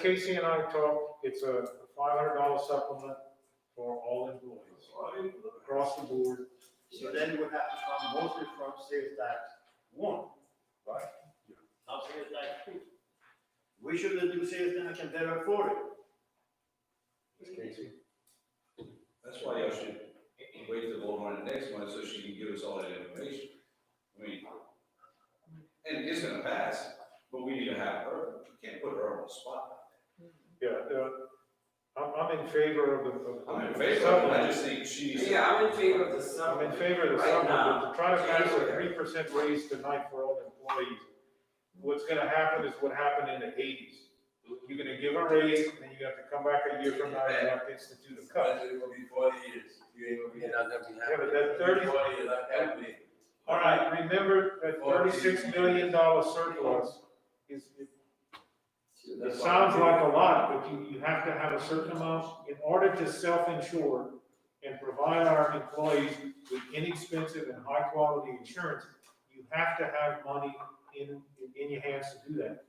Casey and I talked, it's a five hundred dollar supplement for all employees across the board. So then you would have to come mostly from sales tax one. Right. Not sales tax two. We shouldn't do sales tax and better afford it. That's why y'all should wait till the vote on the next one, so she can give us all that information. I mean, and it's gonna pass, but we need to have her, we can't put her on the spot. Yeah, uh, I'm, I'm in favor of the. of the I'm in favor of it, I just think she needs. Yeah, I'm in favor of the I'm summer. in favor of the Right supplement, now, but to try to pass a January. three percent raise tonight for all employees. What's gonna happen is what happened in the eighties. You're gonna give a raise, and then you have to come back a year from now and have to institute a cut. Budget will be forty years, you ain't gonna be Yeah, happy. that'd be Yeah, happy. but that thirty, Forty years, I'm happy. All right, remember that thirty-six million dollar surplus is, it sounds like a lot, but you, you have to have a certain amount in order to self-insure and provide our employees with inexpensive and high-quality insurance, you have to have money in, in your hands to do that.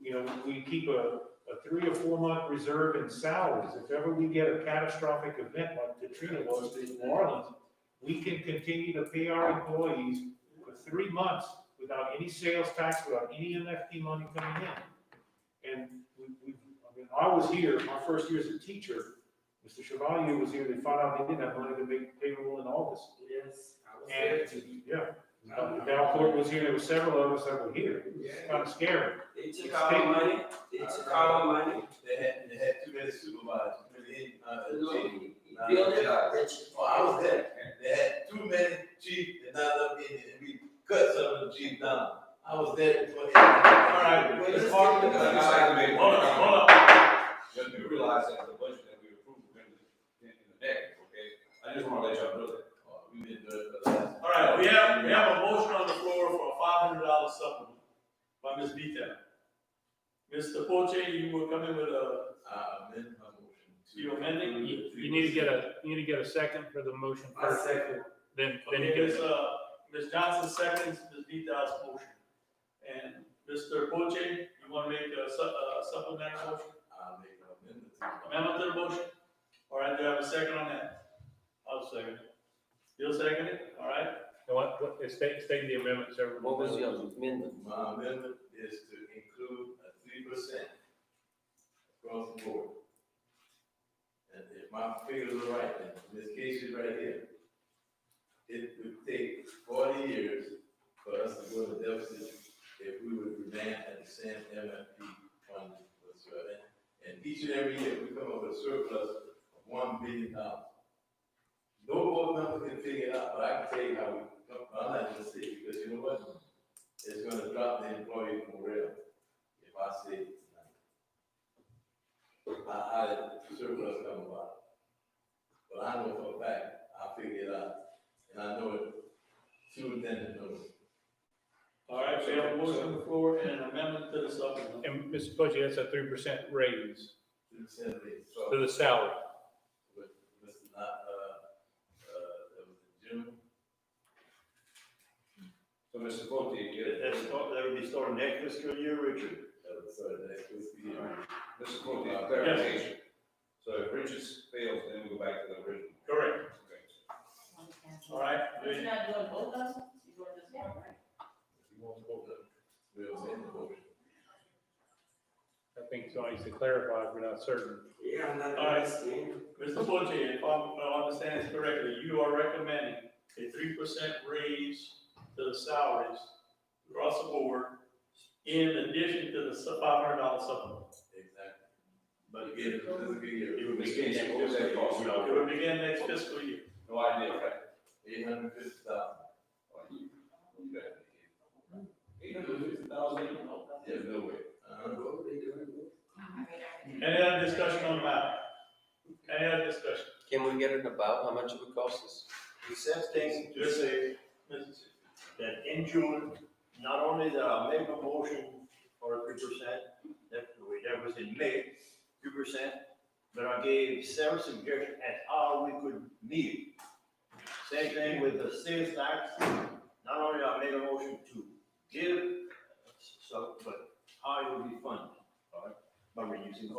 You know, we keep a, a three or four-month reserve in salaries. If ever we get a catastrophic event like Katrina was in New Orleans, we can continue to pay our employees for three months without any sales tax, without any MFP money coming in. And we, we, I mean, I was here, my first year as a teacher, Mr. Chevalier was here, they found out they didn't have money to make payroll in August. Yes. I was there And, too. yeah, Valcourt was here, there were several of us that were here, it was kind of scary. They took our money, they took our money, They had, they had too many supervisors, too many, uh, chiefs. build it up, Rich. Well, I was there, they had too many chiefs and not enough Indians, and we cut some of the chiefs down. I was there for it. All right, Well, it's let's hard to. get the- Hold on, hold on. But you realize that the budget that we approved, we're gonna, in the neck, okay? I just wanna let y'all know that. Uh, Oh, We been doing it for the last. All right, we have, we have a motion on the floor for a five hundred dollar supplement by Ms. Vita. Mr. Poche, you were coming with a, I amend my motion. to- You amending? You you need to get a, you need to get a second for the motion I first, second. then, then you get okay, Ms. it. uh, Ms. Johnson seconds, Ms. Vita's motion. And Mr. Poche, you wanna make a su- a supplementary motion, I make an amendment. to- amendment to the motion? All right, do I have a second on that? I'll second it. You'll second it, all right? And what, what, it's state, state the amendment, sir. What was your amendment? My amendment is to include a three percent across the board. And if my figures are right, and this case is right here, it would take forty years for us to go to deficit if we would remain at the same MFP fund whatsoever. And each and every year, we come up with a surplus of one billion dollars. No board member can figure it out, but I can tell you how we, come- I'm not gonna say, it, because you know what? it's gonna drop the employee morale if I say it tonight. I, I, surplus come about. But I know for a fact, I figured it out, and I know it sooner than it knows. All right, we have a motion on the floor and an amendment to the supplement. And Mr. Poggi, that's a three percent raise Two percent raise, so, to the salary. with, Mr. not, uh, uh, that was in June. So Mr. Vogt, you get it? That's, that would be starting next fiscal year, Richard. that was, uh, next fiscal year. Mr. Vogt, clarification. So if Richards fails, then we go back to the original. Correct, Okay. all right? But You're not doing both of them, you're doing just one, right? You won't vote, we'll send the motion. I think so, I need to clarify if we're not certain. Yeah, I'm not All right. understanding. Mr. Forte, if I'm, if I understand this correctly, you are recommending a three percent raise to the salaries across the board in addition to the five hundred dollar supplement. Exactly. But again, it's a good year. It would Ms. begin next Casey, what was that cost? fiscal- It would begin next fiscal year. No idea, right? Eight hundred fifty thousand. Like, you- you got it. Eight hundred fifty thousand, There's no way. I Uh, don't know what they doing. Any other discussion on the matter? Any other discussion? Can we get it about how much it would cost us? The same thing to say that in June, not only that I make a motion for three percent, that, that was in May, three percent, but I gave several suggestions as how we could meet. Same thing with the sales tax, not only I made a motion to give, so, but how it would be funded. alright? by reducing